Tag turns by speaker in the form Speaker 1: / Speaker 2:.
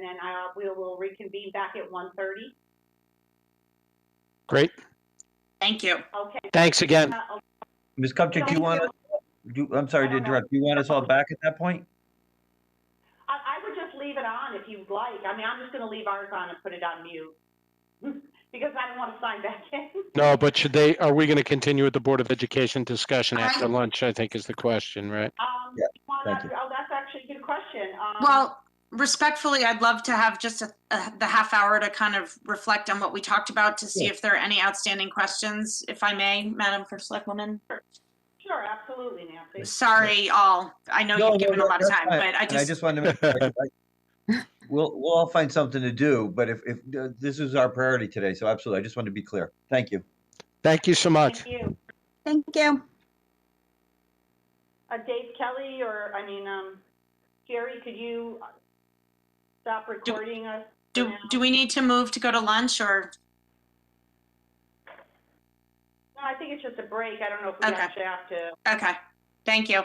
Speaker 1: and I, we will reconvene back at one thirty.
Speaker 2: Great.
Speaker 3: Thank you.
Speaker 1: Okay.
Speaker 2: Thanks again.
Speaker 1: Uh,
Speaker 4: Ms. Kupchak, do
Speaker 1: Thank
Speaker 4: you want,
Speaker 1: you.
Speaker 4: us- do, I'm sorry to
Speaker 1: No, no.
Speaker 4: interrupt, do you want us all back at that point?
Speaker 1: I, I would just leave it on if you'd like. I mean, I'm just gonna leave ours on and put it on mute. Because I don't wanna sign back in.
Speaker 2: No, but should they, are we going to continue with the Board of Education discussion after lunch, I think is the question, right?
Speaker 1: Um,
Speaker 4: Yeah,
Speaker 1: you wanna-
Speaker 4: thank you.
Speaker 1: oh, that's actually a good question. Um,
Speaker 3: Well, respectfully, I'd love to have just a- a- the half hour to kind of reflect on what we talked about to see if there are any outstanding questions, if I may, Madam First Selectwoman.
Speaker 1: Sure, absolutely, Nancy.
Speaker 3: Sorry, all. I know
Speaker 4: No,
Speaker 3: you've
Speaker 4: no,
Speaker 3: given a
Speaker 4: no,
Speaker 3: lot of
Speaker 4: that's
Speaker 3: time,
Speaker 4: fine.
Speaker 3: but I
Speaker 4: And I
Speaker 3: just,
Speaker 4: just wanted to, make sure, like, I- we'll, we'll all find something to do, but if, if, uh, this is our priority today, so absolutely, I just wanted to be clear. Thank you.
Speaker 2: Thank you so much.
Speaker 1: Thank you.
Speaker 5: Thank you.
Speaker 1: Uh, Dave Kelly or, I mean, um, Jerry, could you uh, stop recording us?
Speaker 3: do,
Speaker 1: now?
Speaker 3: do we need to move to go to lunch or?
Speaker 1: No, I think it's just a break. I don't know if we
Speaker 3: Okay.
Speaker 1: actually have to.
Speaker 3: Okay, thank you.